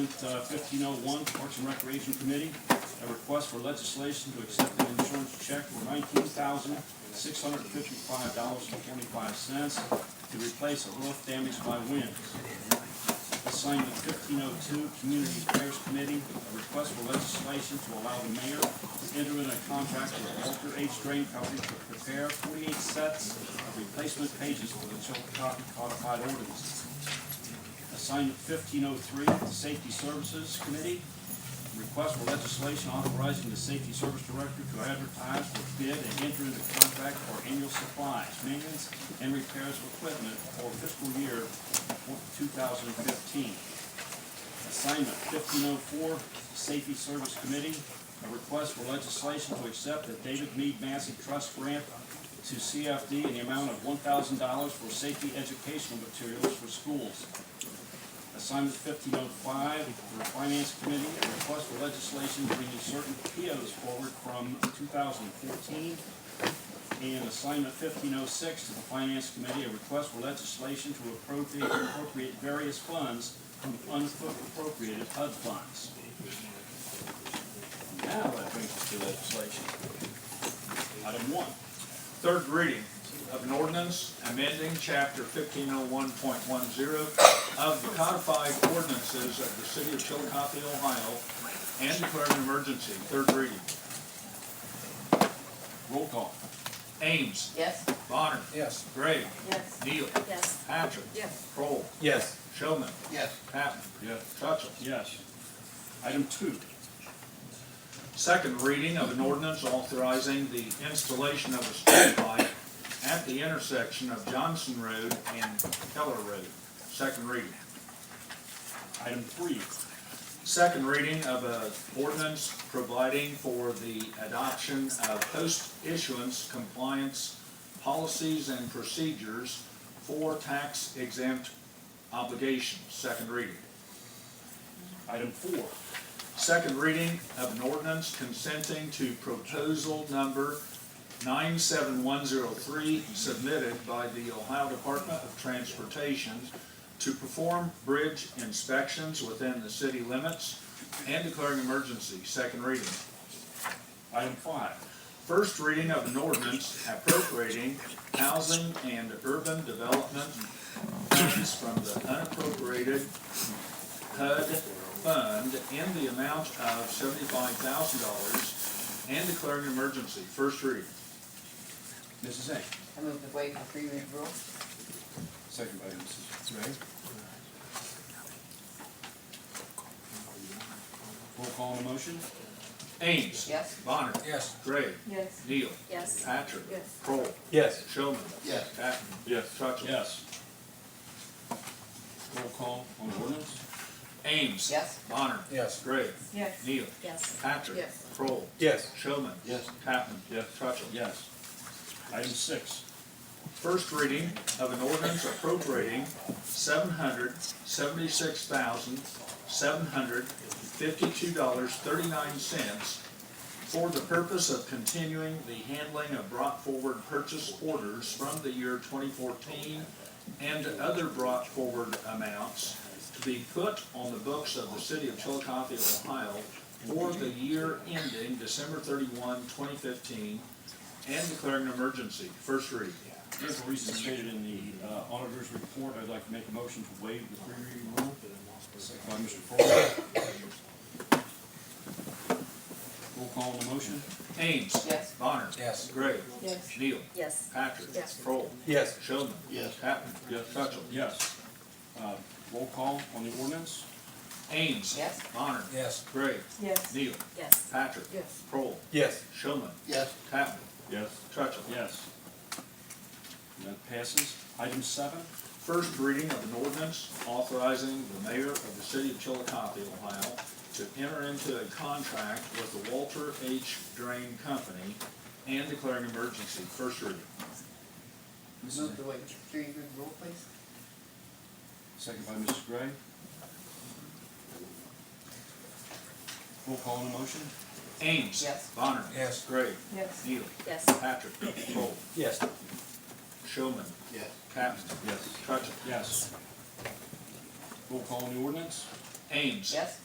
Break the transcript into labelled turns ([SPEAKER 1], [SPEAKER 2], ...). [SPEAKER 1] uh, 1501, Parks and Recreation Committee, a request for legislation to accept an insurance check for $19,655.25 to replace a roof damaged by winds. Assignment 1502, Community Affairs Committee, a request for legislation to allow the mayor to enter in a contract with Walter H. Drain Company to prepare 48 sets of replacement pages for the Chillicothe codified ordinance. Assignment fifteen oh three, Safety Services Committee, request for legislation authorizing the Safety Service Director to advertise for bid and enter into contract for annual supplies, maintenance, and repairs of equipment for fiscal year two thousand and fifteen. Assignment fifteen oh four, Safety Service Committee, a request for legislation to accept the David Mead Massey Trust Grant to CFD in the amount of one thousand dollars for safety educational materials for schools. Assignment fifteen oh five for the Finance Committee, a request for legislation bringing certain POs forward from two thousand and fourteen. And assignment fifteen oh six to the Finance Committee, a request for legislation to appropriate, appropriate various funds from unappropriated HUD funds. Now that brings us to legislation. Item one.
[SPEAKER 2] Third reading of an ordinance amending chapter fifteen oh one point one zero of the codified ordinances of the city of Chillicothe, Ohio, and declaring an emergency. Third reading.
[SPEAKER 1] Roll call.
[SPEAKER 2] Ames.
[SPEAKER 3] Yes.
[SPEAKER 2] Bonner.
[SPEAKER 4] Yes.
[SPEAKER 2] Gray.
[SPEAKER 3] Yes.
[SPEAKER 2] Neal.
[SPEAKER 3] Yes.
[SPEAKER 2] Patrick.
[SPEAKER 3] Yes.
[SPEAKER 2] Kroll.
[SPEAKER 4] Yes.
[SPEAKER 2] Showman.
[SPEAKER 4] Yes.
[SPEAKER 2] Patton.
[SPEAKER 1] Yes.
[SPEAKER 2] Trutville.
[SPEAKER 1] Yes. Item two.
[SPEAKER 2] Second reading of an ordinance authorizing the installation of a street light at the intersection of Johnson Road and Keller Road. Second reading.
[SPEAKER 1] Item three.
[SPEAKER 2] Second reading of an ordinance providing for the adoption of post-issuance compliance policies and procedures for tax exempt obligations. Second reading.
[SPEAKER 1] Item four.
[SPEAKER 2] Second reading of an ordinance consenting to proposal number 97103 submitted by the Ohio Department of Transportation to perform bridge inspections within the city limits and declaring emergency. Second reading.
[SPEAKER 1] Item five.
[SPEAKER 2] First reading of an ordinance appropriating housing and urban development funds from the unappropriated HUD fund in the amount of seventy-five thousand dollars and declaring an emergency. First reading.
[SPEAKER 1] Mrs. A.
[SPEAKER 3] I move the waive the three read rule.
[SPEAKER 1] Second by Mrs. Ray. Roll call on the motion?
[SPEAKER 2] Ames.
[SPEAKER 3] Yes.
[SPEAKER 2] Bonner.
[SPEAKER 4] Yes.
[SPEAKER 2] Gray.
[SPEAKER 3] Yes.
[SPEAKER 2] Neal.
[SPEAKER 3] Yes.
[SPEAKER 2] Patrick.
[SPEAKER 3] Yes.
[SPEAKER 2] Kroll.
[SPEAKER 4] Yes.
[SPEAKER 2] Showman.
[SPEAKER 4] Yes.
[SPEAKER 2] Patton.
[SPEAKER 1] Yes.
[SPEAKER 2] Trutville.
[SPEAKER 1] Yes. Roll call on ordinance?
[SPEAKER 2] Ames.
[SPEAKER 3] Yes.
[SPEAKER 2] Bonner.
[SPEAKER 4] Yes.
[SPEAKER 2] Gray.
[SPEAKER 3] Yes.
[SPEAKER 2] Neal.
[SPEAKER 3] Yes.
[SPEAKER 2] Patrick.
[SPEAKER 3] Yes.
[SPEAKER 2] Kroll.
[SPEAKER 4] Yes.
[SPEAKER 2] Showman.
[SPEAKER 4] Yes.
[SPEAKER 2] Patton. Yes. Trutville.
[SPEAKER 1] Yes. Item six.
[SPEAKER 2] First reading of an ordinance appropriating seven hundred seventy-six thousand seven hundred fifty-two dollars thirty-nine cents for the purpose of continuing the handling of brought forward purchase orders from the year twenty fourteen and other brought forward amounts to be put on the books of the city of Chillicothe, Ohio for the year ending December 31, 2015, and declaring an emergency. First reading.
[SPEAKER 1] There's a reason stated in the uh, auditor's report. I'd like to make a motion to waive the three reading rule. Second by Mr. Crowell. Roll call on the motion?
[SPEAKER 2] Ames.
[SPEAKER 3] Yes.
[SPEAKER 2] Bonner.
[SPEAKER 4] Yes.
[SPEAKER 2] Gray.
[SPEAKER 3] Yes.
[SPEAKER 2] Neal.
[SPEAKER 3] Yes.
[SPEAKER 2] Patrick.
[SPEAKER 3] Yes.
[SPEAKER 2] Kroll.
[SPEAKER 4] Yes.
[SPEAKER 2] Showman.
[SPEAKER 4] Yes.
[SPEAKER 2] Patton. Yes. Trutville.
[SPEAKER 1] Yes. Uh, Roll call on the ordinance?
[SPEAKER 2] Ames.
[SPEAKER 3] Yes.
[SPEAKER 2] Bonner.
[SPEAKER 4] Yes.
[SPEAKER 2] Gray.
[SPEAKER 3] Yes.
[SPEAKER 2] Neal.
[SPEAKER 3] Yes.
[SPEAKER 2] Patrick.
[SPEAKER 3] Yes.
[SPEAKER 2] Kroll.
[SPEAKER 4] Yes.
[SPEAKER 2] Showman.
[SPEAKER 4] Yes.
[SPEAKER 2] Patton.
[SPEAKER 1] Yes.
[SPEAKER 2] Trutville.
[SPEAKER 1] Yes. And That passes. Item seven,
[SPEAKER 2] First reading of an ordinance authorizing the mayor of the city of Chillicothe, Ohio, to enter into a contract with the Walter H. Drain Company and declaring emergency. First reading.
[SPEAKER 3] Move the waive the three read rule, please.
[SPEAKER 1] second by Mrs. Gray. Roll call on the motion?
[SPEAKER 2] Ames.
[SPEAKER 3] Yes.
[SPEAKER 2] Bonner.
[SPEAKER 4] Yes.
[SPEAKER 2] Gray.
[SPEAKER 3] Yes.
[SPEAKER 2] Neal.
[SPEAKER 3] Yes.
[SPEAKER 2] Patrick. Kroll.
[SPEAKER 4] Yes.
[SPEAKER 2] Showman.
[SPEAKER 4] Yes.
[SPEAKER 2] Patton.
[SPEAKER 1] Yes.
[SPEAKER 2] Trutville.
[SPEAKER 1] Yes. Roll call on the ordinance?
[SPEAKER 5] Ames.
[SPEAKER 2] Yes.